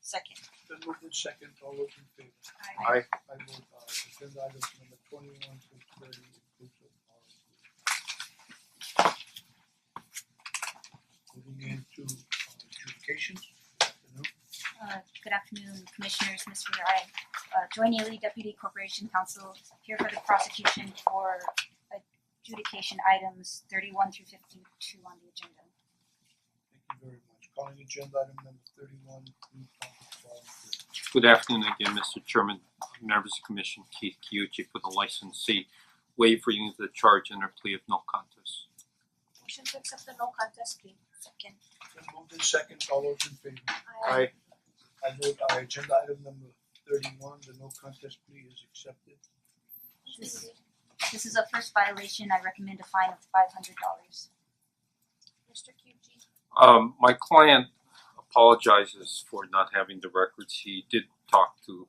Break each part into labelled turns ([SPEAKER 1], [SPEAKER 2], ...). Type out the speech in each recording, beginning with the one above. [SPEAKER 1] Second.
[SPEAKER 2] Then moved in second, all those in favor?
[SPEAKER 1] Aye.
[SPEAKER 3] Aye.
[SPEAKER 2] I vote aye, agenda items number twenty one to thirty inclusive are approved. Moving into uh, adjudication, good afternoon.
[SPEAKER 4] Uh good afternoon Commissioners, Mr. Rai. Uh Joy Neely, Deputy Corporation Counsel, here for the prosecution for adjudication items thirty one through fifty two on the agenda.
[SPEAKER 2] thank you very much. Calling agenda item number thirty one, group public
[SPEAKER 3] Good afternoon again, Mr. Chairman, members of the Commission, Keith Kyuchi for the licensee. Waive reading of the charge under plea of no contest.
[SPEAKER 1] Motion to accept the no contest plea. Second.
[SPEAKER 2] Then moved in second, all those in favor?
[SPEAKER 3] Aye.
[SPEAKER 2] I vote aye, agenda item number thirty one, the no contest plea is accepted.
[SPEAKER 4] This this is a first violation, I recommend a fine of five hundred dollars.
[SPEAKER 1] Mister Kyuchi.
[SPEAKER 3] Um my client apologizes for not having the records. He did talk to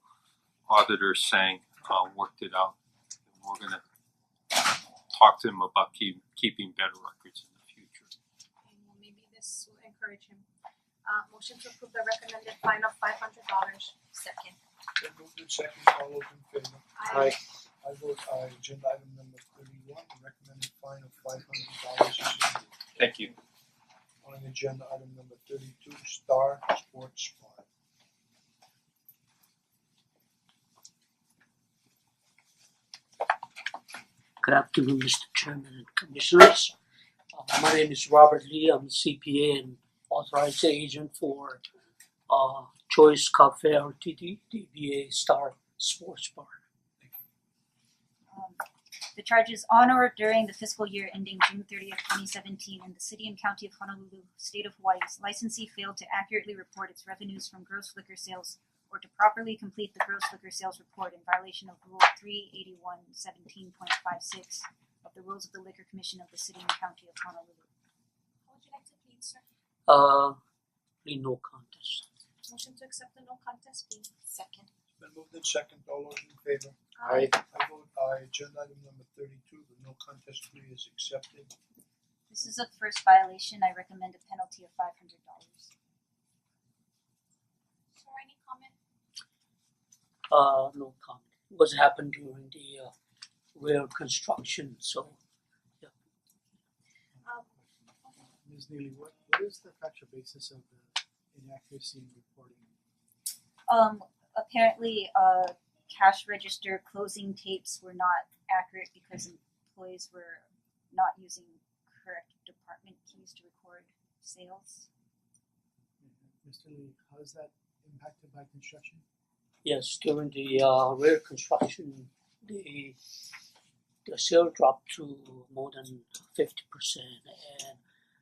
[SPEAKER 3] auditor Sang, uh worked it out. And We're gonna talk to him about keep keeping better records in the future.
[SPEAKER 1] And well, maybe this will encourage him. Uh motion to approve the recommended fine of five hundred dollars. Second.
[SPEAKER 2] Then moved in second, all those in favor?
[SPEAKER 1] Aye.
[SPEAKER 2] I vote aye, agenda item number thirty one, the recommended fine of five hundred dollars is approved.
[SPEAKER 3] Thank you.
[SPEAKER 2] On agenda item number thirty two, Star Sports Bar.
[SPEAKER 5] Good afternoon, Mr. Chairman and Commissioners. Uh, my name is Robert Lee. I'm a CPA and authorized agent for uh, Choice Cafe RTD, DBA Star Sports Bar.
[SPEAKER 4] Um the charges on or during the fiscal year ending June thirtieth, twenty seventeen in the city and county of Honolulu, state of Hawaii's licensee failed to accurately report its revenues from gross liquor sales or to properly complete the gross liquor sales report in violation of rule three eighty one seventeen point five six of the rules of the liquor commission of the city and county of Honolulu.
[SPEAKER 1] How would you like to plead, sir?
[SPEAKER 5] Uh, plea no contest.
[SPEAKER 1] Motion to accept the no contest plea. Second.
[SPEAKER 2] Then moved in second, all those in favor?
[SPEAKER 1] Uh,
[SPEAKER 3] Aye.
[SPEAKER 2] I vote aye, agenda item number thirty two, the no contest plea is accepted.
[SPEAKER 4] This is a first violation. I recommend a penalty of five hundred dollars.
[SPEAKER 1] Sir, any comment?
[SPEAKER 5] Uh, no comment. It was happened during the uh, rail construction, so
[SPEAKER 1] Um
[SPEAKER 6] Ms. Neely, what what is the factual basis of the inaccuracy in reporting?
[SPEAKER 4] Um, apparently, uh, cash register closing tapes were not accurate because employees were not using correct department keys to record sales.
[SPEAKER 6] Mr. Lee, how is that impacted by construction?
[SPEAKER 5] Yes, during the uh rail construction, the the sale dropped to more than fifty percent and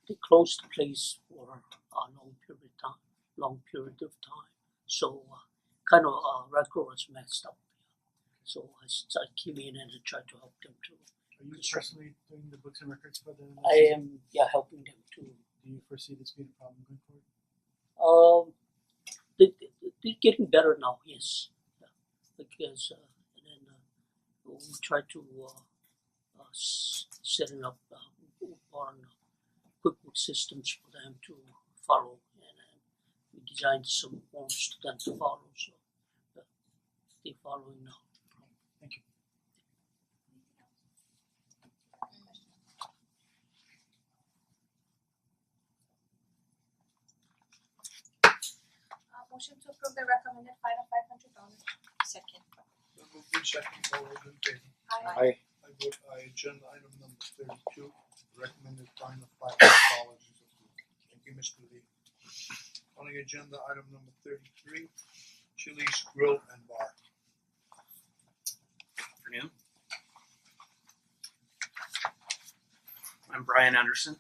[SPEAKER 5] they closed the place for a long period of time, long period of time. So uh, kind of uh record was messed up. So I s- I came in and I tried to help them to,
[SPEAKER 6] Are you
[SPEAKER 5] Sure.
[SPEAKER 6] personally doing the books and records for the?
[SPEAKER 5] I am, yeah, helping them to
[SPEAKER 6] Do you foresee this being a problem going forward?
[SPEAKER 5] Um, they, they- they're getting better now, yes. Yeah. Because, uh, and then uh, we try to uh, uh, s- setting up uh, on QuickBooks systems for them to follow. And uh, we designed some forms to them to follow, so uh, they're following now.
[SPEAKER 1] uh motion to approve the recommended fine of five hundred dollars.
[SPEAKER 4] Second.
[SPEAKER 2] Then moved in second, all those in favor?
[SPEAKER 1] Aye.
[SPEAKER 2] I vote aye, agenda item number thirty two, recommended fine of five hundred dollars is approved. Thank you, Mr. Lee. Calling agenda item number thirty three, Chili's Grill and Bar.
[SPEAKER 7] afternoon. I'm Brian Anderson,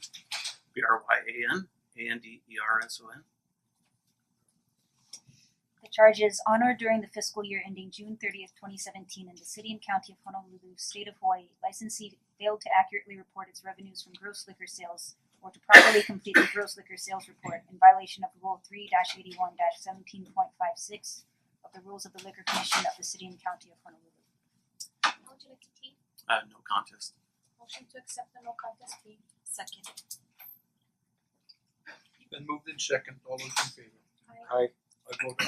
[SPEAKER 7] B R Y A N, A N D E R S O N.
[SPEAKER 4] The charges on or during the fiscal year ending June thirtieth, twenty seventeen in the city and county of Honolulu, state of Hawaii, licensee failed to accurately report its revenues from gross liquor sales or to properly complete the gross liquor sales report in violation of Rule three eighty-one seventeen point five six of the rules of the Liquor Commission of the city and county of Honolulu.
[SPEAKER 1] How would you like to plead?
[SPEAKER 7] Uh, no contest.
[SPEAKER 1] Motion to accept the no contest plea.
[SPEAKER 4] Second.
[SPEAKER 2] Then moved in second, all those in favor?
[SPEAKER 1] Aye.
[SPEAKER 2] I vote